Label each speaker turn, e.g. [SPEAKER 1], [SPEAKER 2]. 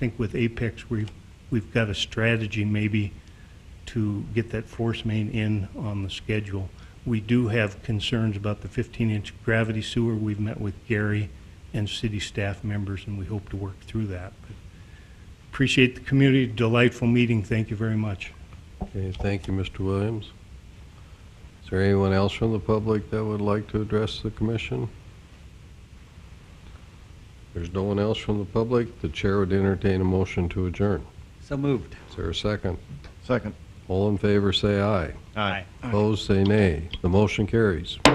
[SPEAKER 1] think with Apex, we, we've got a strategy maybe to get that force main in on the schedule. We do have concerns about the 15-inch gravity sewer. We've met with Gary and city staff members, and we hope to work through that. But Appreciate the community, delightful meeting, thank you very much.
[SPEAKER 2] Okay, thank you, Mr. Williams. Is there anyone else from the public that would like to address the commission? If There's no one else from the public, the chair would entertain a motion to adjourn.
[SPEAKER 3] So moved.
[SPEAKER 2] Is there a second?
[SPEAKER 4] Second.
[SPEAKER 2] All in favor, say aye.
[SPEAKER 4] Aye.
[SPEAKER 2] Opposed, say nay. The motion carries.